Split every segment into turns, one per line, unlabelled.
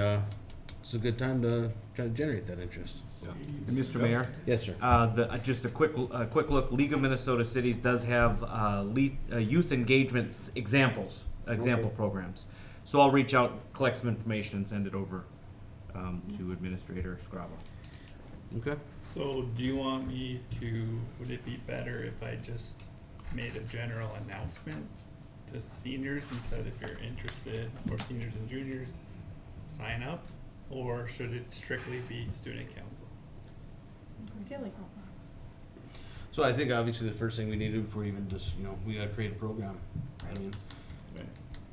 Uh, it's a good time to try to generate that interest.
Mr. Mayor,
Yes, sir.
uh, the, uh, just a quick, uh, quick look, League of Minnesota Cities does have, uh, le- uh, youth engagements examples, example programs. So I'll reach out, collect some information and send it over, um, to Administrator Scrabble.
Okay.
So do you want me to, would it be better if I just made a general announcement to seniors and said if you're interested, or seniors and juniors, sign up? Or should it strictly be student council?
I feel like
So I think obviously the first thing we need to do before even just, you know, we gotta create a program. I mean,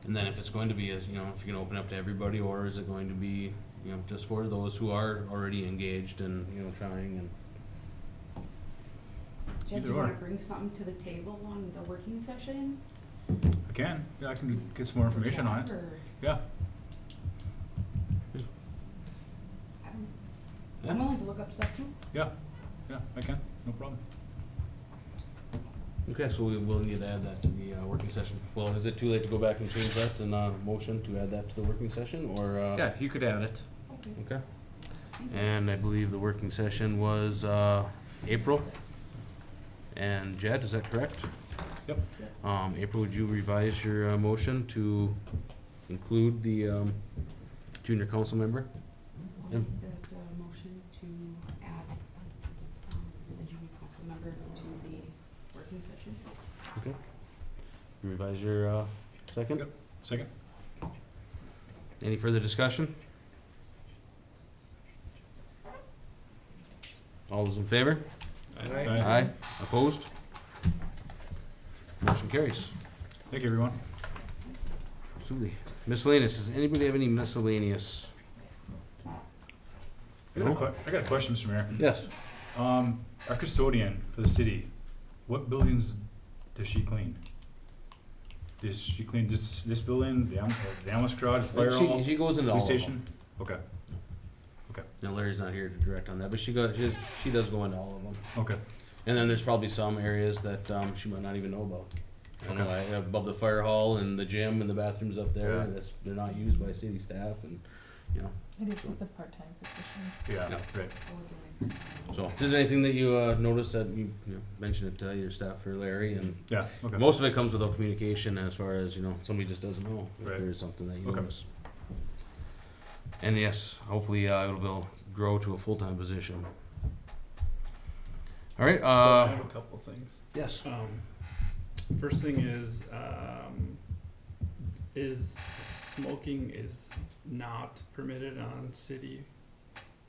and then if it's going to be, as you know, if you can open up to everybody, or is it going to be, you know, just for those who are already engaged and, you know, trying and.
Jeff,
Either
you wanna
or.
bring something to the table on the working session?
I can, yeah, I can get some more information on it,
Or-
yeah.
I don't-
Yeah.
I'm willing to look up stuff too.
Yeah, yeah, I can, no problem.
Okay, so we will need to add that to the uh, working session. Well, is it too late to go back and change that and uh, motion to add that to the working session or? uh,
Yeah, you could add it.
Okay.
Okay. And I believe the working session was uh, April. And Jed, is that correct?
Yep.
Um, April, would you revise your uh, motion to include the um, junior council member?
I'll
Yeah.
make that uh, motion to add um, the junior council member to the working session. Oh,
Revise your uh, second?
Yep. Second?
Any further discussion? All those in favor?
Aye.
Opposed? Motion carries.
Thank you, everyone.
Absolutely. Miscellaneous, does anybody have any miscellaneous?
I got a que- I got a question, Mr. Mayor.
Yes.
Um, our custodian for the city, what buildings does she clean? Does she clean this, this building, the am- uh, the ambulance garage, fire
She,
hall,
she goes into all
police
of them.
station? Okay,
Now Larry's not here to direct on that, but she goes, she, she does go into all of them.
okay,
And then there's probably some areas that, um, she might not even know about. You know,
Okay.
like above the fire hall and the gym and the bathrooms up there,
Yeah.
that's, they're not used by city staff and, you know,
It is, it's a part-time position.
yeah,
Yeah.
right.
I was away.
so. If there's anything that you, uh, noticed that you, you know, mention it to your staff or Larry and
Yeah, okay.
Most of it comes without communication as far as, you know, somebody just doesn't know if
Right.
there is something that you
Okay.
notice. And yes, hopefully, uh, it'll build, grow to a full-time position. All right,
So I
uh,
have a couple things.
yes,
Um, first thing is, um, is smoking is not permitted on city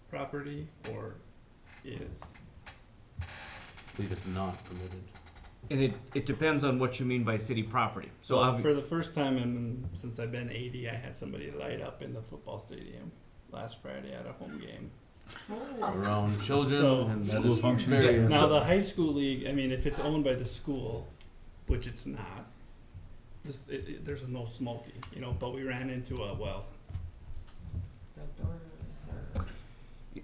property or is?
I believe it's not permitted.
And it, it depends on what you mean by city property. So
So
obvi-
for the first time in since I've been 80, I had somebody light up in the football stadium last Friday at a home game.
Oh.
Around children
So-
and that
School
is
function.
very-
Now the high school league, I mean, if it's owned by the school, which it's not, this, it, it, there's no smoking, you know. But we ran into a well.
It's outdoors or.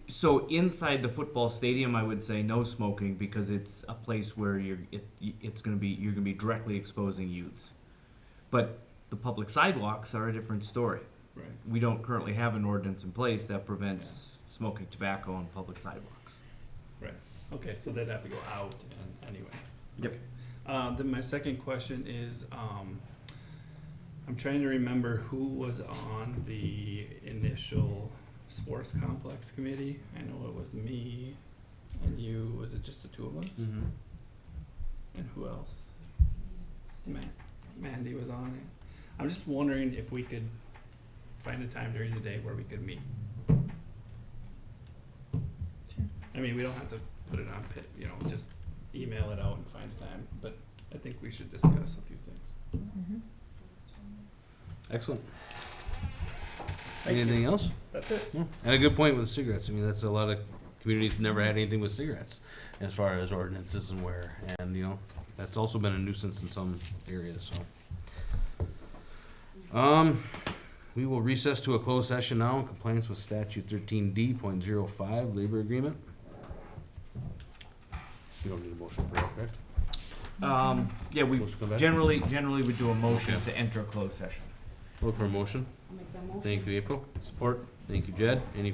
So inside the football stadium, I would say no smoking because it's a place where you're it, it's going to be you're going to be directly exposing youths. But the public sidewalks are a different story.
Right.
We don't currently have an ordinance in place that prevents smoking tobacco on public sidewalks.
Okay, so they'd have to go out and anyway.
Yep.
Okay. Uh, then my second question is, um, I'm trying to remember who was on the initial sports complex committee. I know it was me and you, was it just the two of us?
Mhm.
And who else? Ma- Mandy was on it. I'm just wondering if we could find a time during the day where we could meet.
Sure.
I mean, we don't have to put it on pit, you know, just email it out and find a time, but I think we should discuss a few things.
Mm-hmm.
Excellent. Anything else?
That's it.
Yeah, And a good point with cigarettes. I mean, that's a lot of communities never had anything with cigarettes as far as ordinances and where. And, you know, that's also been a nuisance in some areas, so. Um, we will recess to a closed session now in compliance with statute thirteen D point zero five, labor agreement. You don't need a motion for that, correct?
Um, yeah, we
Motion to come back?
generally generally we do a motion
Okay.
to enter a closed session.
Look for a motion.
I'll make that motion.
Thank you, April.
Support?
Thank you, Jed. Any